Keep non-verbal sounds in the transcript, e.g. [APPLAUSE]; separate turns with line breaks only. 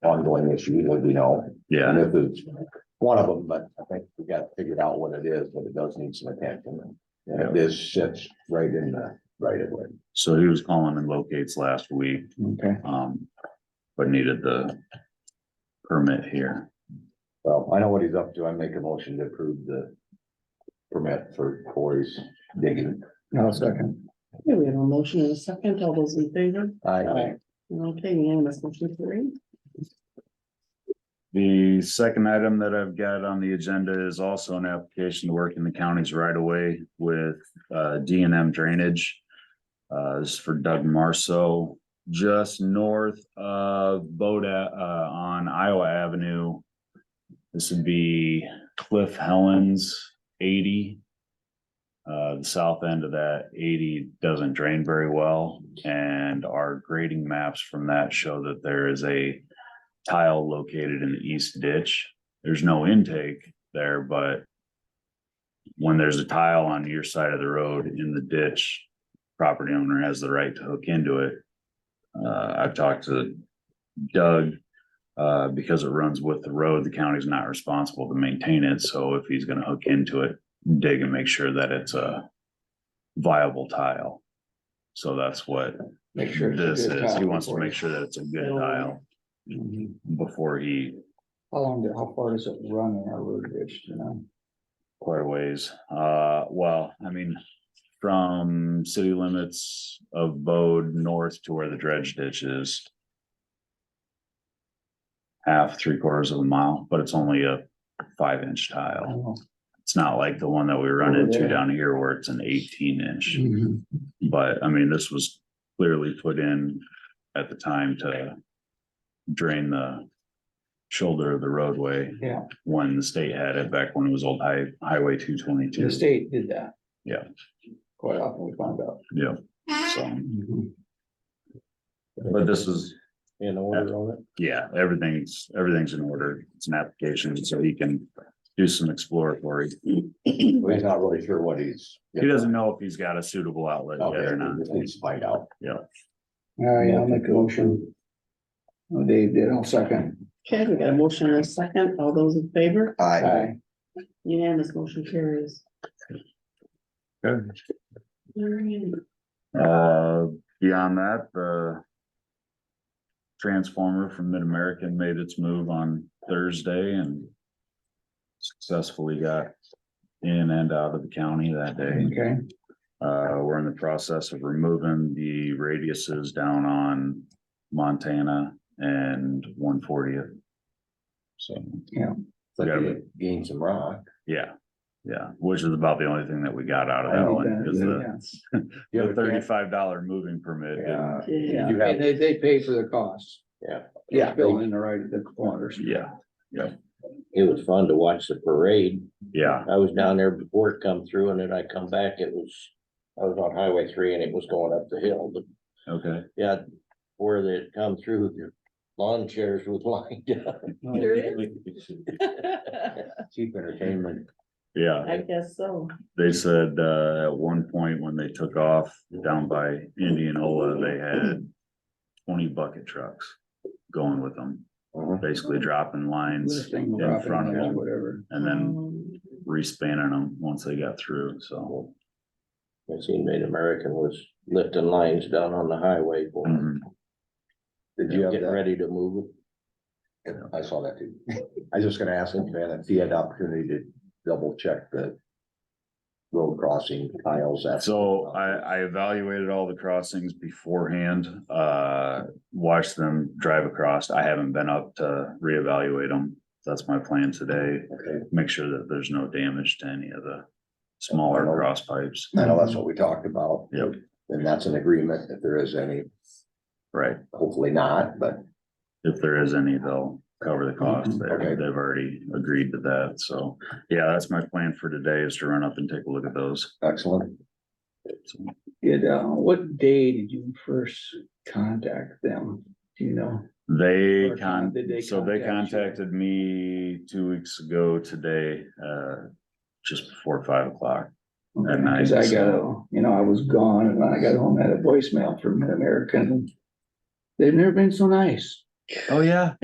ongoing issue, as we know. And
Yeah,
this is one of them, but I think we got figured out what it is, but it does need some attention. And this sits right in the right of way.
so he was calling and locates last week,
Okay.
um, but needed the permit here.
Well, I know what he's up to. I make a motion to approve the permit for Corey's digging.
No, second.
Okay, we have a motion and a second. All those in favor?
I,
Okay, unanimous motion carried.
The second item that I've got on the agenda is also an application to work in the counties right away with uh D and M drainage. Uh, this is for Doug Marso, just north of Boda uh on Iowa Avenue. This would be Cliff Helens eighty. Uh, the south end of that eighty doesn't drain very well, and our grading maps from that show that there is a tile located in the east ditch. There's no intake there, but when there's a tile on your side of the road in the ditch, property owner has the right to hook into it. Uh, I've talked to Doug, uh, because it runs with the road, the county's not responsible to maintain it. So if he's gonna hook into it, dig and make sure that it's a viable tile. So that's what
make sure.
this is. He wants to make sure that it's a good tile before he
How long, did- how far does it run in our road ditch, you know?
quite a ways. Uh, well, I mean, from city limits of Bode north to where the dredge ditch is. Half, three quarters of a mile, but it's only a five inch
I
tile.
don't know.
It's not like the one that we run
Over
into
there.
down here where it's an eighteen inch.
Mhm.
But I mean, this was clearly put in at the time to drain the shoulder of the roadway.
Yeah.
When the state had it back when it was old high, highway two
The
twenty-two.
state did that.
Yeah.
Quite often we found out.
Yeah, so, but this is,
In
order
on it.
yeah, everything's, everything's in order. It's an application, so he can do some exploratory.
Well, He's not really sure what he's.
He doesn't know if he's got a suitable outlet
Oh,
Out
yet or
there,
not.
he just needs to find out.
All right, I'll make a motion. Oh, Dave did, I'll second.
Okay, we got a motion and a second. All those in favor?
I,
Aye.
Unanimous motion carries.
Good.
Alright.
Uh, beyond that, the transformer from Mid-American made its move on Thursday and successfully got in and out of the county that day.
Okay,
Uh, we're in the process of removing the radiuses down on Montana and one fortieth. So,
but he gained some rock.
yeah, yeah, which is about the only thing that we got out of
I
that
think
one.
that-
is uh, the-
yes.
You
The
have a chance-
thirty-five dollar moving permit didn't
Yeah,
Yeah.
yeah,
You have-
and they, they pay for the costs.
Yeah.
Yeah, building the right, the corners.
Yeah,
It was fun to watch the parade.
yeah,
I was down there before it come through and then I come back, it was, I was on highway three and it was going up the hill, but
okay,
yeah, where they had come through, the lawn chairs was [LAUGHS] lined up.
Oh,
There is.
Cheap entertainment.
yeah.
[LAUGHS] I guess so.
They said, uh, at one point when they took off down by Indianola, they had twenty bucket trucks going with them,
Mhm.
basically dropping lines
Lifting,
in
dropping,
front of
or
them
whatever.
and then
Um,
respanning them once they got through, so.
I seen Made American was lifting lines down on the highway for them,
mhm.
Did you have
getting
that?
ready to move. it.
Yeah, I saw that too. I was just gonna ask him, man, if he had the opportunity to double check the road crossing tiles. after-
So I, I evaluated all the crossings beforehand, uh, watched them drive across. I haven't been up to reevaluate them. That's my plan today.
Okay,
Make sure that there's no damage to any of the smaller cross pipes.
I know that's what we talked about.
Yep.
And that's an agreement, if there is any,
Right,
hopefully not, but
if there is any, they'll cover the cost.
Okay.
They- They've already agreed to that, so, yeah, that's my plan for today is to run up and take a look at those.
excellent.
So,
Did, uh, what day did you first contact them? Do you know?
They
Or
con,
did they
so they
contact you?
contacted me two weeks ago today, uh, just before five o'clock. At night,
Cause I got, a-
so-
you know, I was gone and I got home, had a voicemail from Mid-American. They've never been so nice.
Oh, yeah?